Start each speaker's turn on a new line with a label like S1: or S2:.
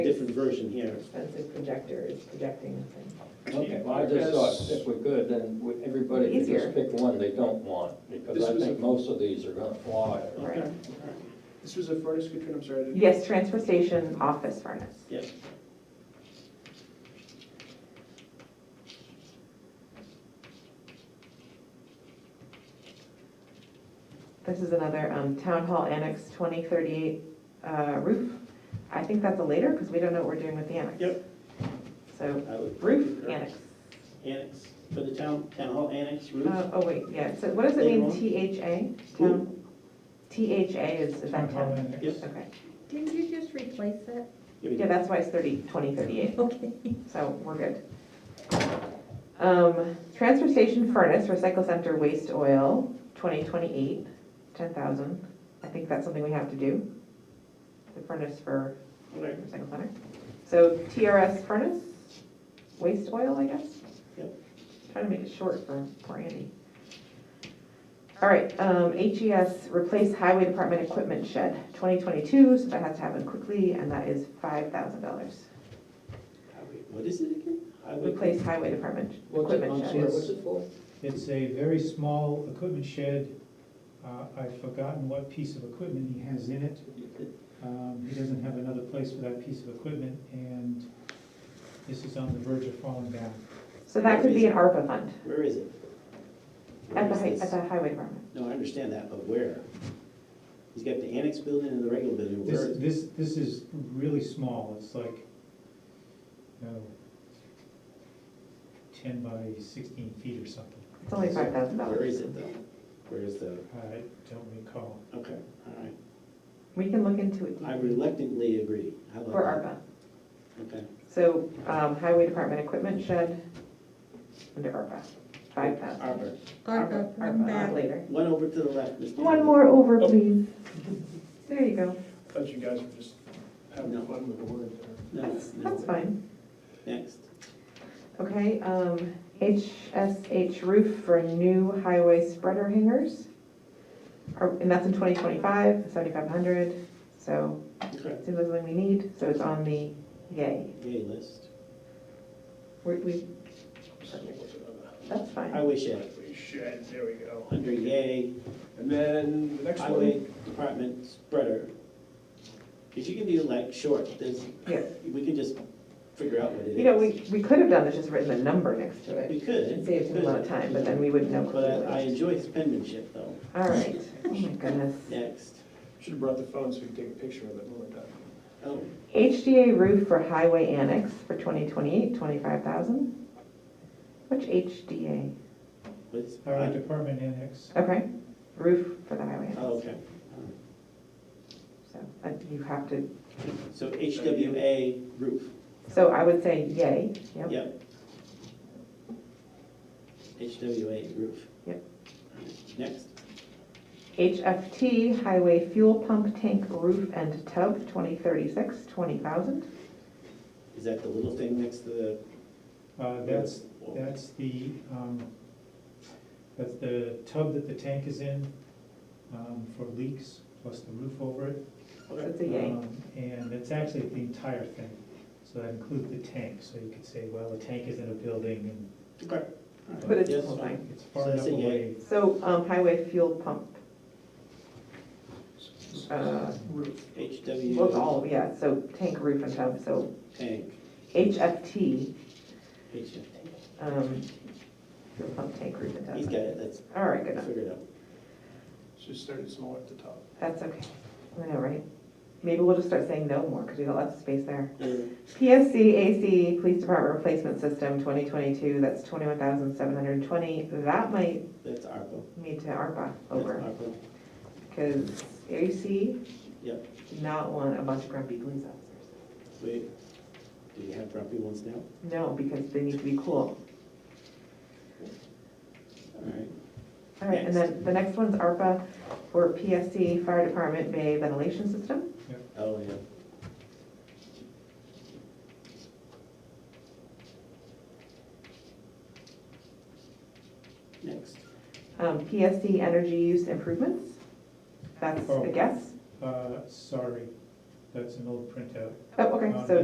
S1: different version here.
S2: expensive projector is projecting the thing.
S3: Okay, well, I just thought if we could, then we- everybody could
S2: Easier.
S3: just pick one they don't want, because
S4: This
S3: I
S4: was
S3: think
S4: a-
S3: most of these are gonna fly.
S2: Right.
S1: Okay, all right.
S4: This was a furnace, Katrina, I'm sorry. I didn't-
S2: Yes, transfer station, office furnace.
S1: Yep.
S2: This is another um, Town Hall Annex 2038 uh, roof. I think that's a later, because we don't know what we're doing with the annex.
S1: Yep.
S2: So
S1: I would-
S2: roof, annex.
S1: Annex, for the town, town hall annex roof.
S2: Uh, Oh, wait, yeah, so what does it
S1: Later
S2: mean,
S1: on.
S2: THA?
S1: Who?
S2: Town- THA is, is that town?
S1: Yep.
S2: Okay,
S5: Didn't you just replace it?
S1: Here we
S2: yeah,
S1: go.
S2: that's why it's 30, 2038.
S5: Okay.
S2: So we're good. Um, transfer station furnace, recycle center waste oil, twenty twenty-eight, ten thousand. I think that's something we have to do. The furnace for
S1: Right.
S2: recycle center. So TRS furnace, waste oil, I guess?
S1: Yep.
S2: Trying to make it short for, for Andy. All right, um, HES, replace highway department equipment shed, twenty twenty-two, so that has to happen quickly, and that is five thousand dollars.
S1: Highway- What is it again? Highway-
S2: Replace highway department
S3: What's it,
S2: equipment
S3: I'm
S2: shed.
S3: sorry, what's it for?
S6: It's a very small equipment shed. Uh, I've forgotten what piece of equipment he has in it. Um, He doesn't have another place for that piece of equipment, and this is on the verge of falling down.
S2: So that could be an ARPA fund
S1: Where is it? Where
S2: at the,
S1: is
S2: hi-
S1: this?
S2: at the highway department.
S1: No, I understand that, but where? He's got the annex building and the regular building, where
S6: This,
S1: is it?
S6: this, this is really small. It's like, you know, ten by sixteen feet or something.
S2: It's only five thousand
S1: Where
S2: dollars.
S1: is it though? Where is the,
S6: I don't recall.
S1: okay, all right.
S2: We can look into it
S1: I
S2: deeper
S1: reluctantly agree. How
S2: for
S1: about
S2: ARPA.
S1: that? Okay.
S2: So, um, highway department equipment shed under ARPA, five thousand.
S1: Arbor.
S5: ARPA, come
S2: ARPA, uh,
S5: back.
S2: later.
S1: One over to the left, Mr.
S2: One
S1: Hill.
S2: more over, please. There you go.
S4: I Thought you guys were just
S1: Oh, No.
S4: having fun with the word there.
S1: No,
S2: That's,
S1: no,
S2: that's fine.
S1: next.
S2: Okay, um, HSH roof for new highway spreader hangers. Are- And that's in twenty twenty-five, seventy-five hundred, so
S1: Okay.
S2: it seems like something we need, so it's on the yay.
S1: Yay list.
S2: We, we,
S4: So what's another?
S2: that's fine.
S1: Highway shed,
S4: Highway Shed, there we go.
S1: under yay,
S4: And then the next
S1: highway
S4: one,
S1: department spreader. If you can do like short, there's,
S2: Yeah.
S1: we can just figure out what it is.
S2: You know, we, we could have done this, just written the number next to
S1: We
S2: it.
S1: could.
S2: It saves him a lot of time, but then we wouldn't know.
S1: But I I
S2: clearly.
S1: enjoy penmanship though.
S2: All right, oh my goodness.
S1: Next.
S4: should have brought the phone so we could take a picture of it, oh my God.
S1: Oh,
S2: HDA roof for highway annex for 2028, 25,000. Which HDA?
S1: what's?
S6: Highway Department Annex.
S2: Okay, roof for the highway
S1: Oh,
S2: annex.
S1: okay.
S2: So uh, you have to,
S1: So HWA roof,
S2: so I would say yay, yep.
S1: yep. HWA roof.
S2: Yep.
S1: Next.
S2: HFT highway fuel pump tank roof and tub, 2036, 20,000.
S1: Is that the little thing next to the?
S6: Uh, That's That's the, um, that's the tub that the tank is in, um, for leaks, plus the roof over it.
S2: So it's a yay.
S1: Uh,
S6: Um, And it's actually the entire thing, so that includes the tank, so you could say, well, the tank is in a building
S1: Okay. all right.
S2: But it's the
S1: Yes,
S2: whole
S1: fine.
S2: thing.
S6: and it's far
S1: So that's
S6: enough
S1: a yay.
S6: away.
S2: So um, highway fuel pump Uh,
S4: Roof.
S2: Well,
S1: HWA
S2: all, yeah, so tank roof and tub, so
S1: tank,
S2: HFT,
S1: HF.
S2: um, fuel pump tank roof and
S1: He's
S2: tub.
S1: got it, that's,
S2: All right, good enough,
S1: figured out.
S4: Just started small at the top.
S2: that's okay, I know, right? Maybe we'll just start saying no more, because we got lots of space there.
S1: Uh,
S2: PSC AC, Police Department Replacement System, twenty twenty-two, that's twenty-one thousand seven hundred and twenty, that might
S1: That's ARPA.
S2: need to ARPA
S1: That's
S2: over,
S1: ARPA.
S2: because AC
S1: Yep.
S2: did not want a bunch of grumpy police officers.
S1: Wait, do you have property ones now?
S2: No, because they need to be
S1: All
S2: cool.
S1: right.
S2: All right, and then the next one's ARPA for PSC Fire Department Bay Ventilation System.
S1: Oh, yeah. Next.
S2: Um, PSC Energy Use Improvements, that's
S6: Oh.
S2: a guess.
S6: Uh, sorry, that's an old printout.
S2: Oh, okay,
S6: Um,
S2: so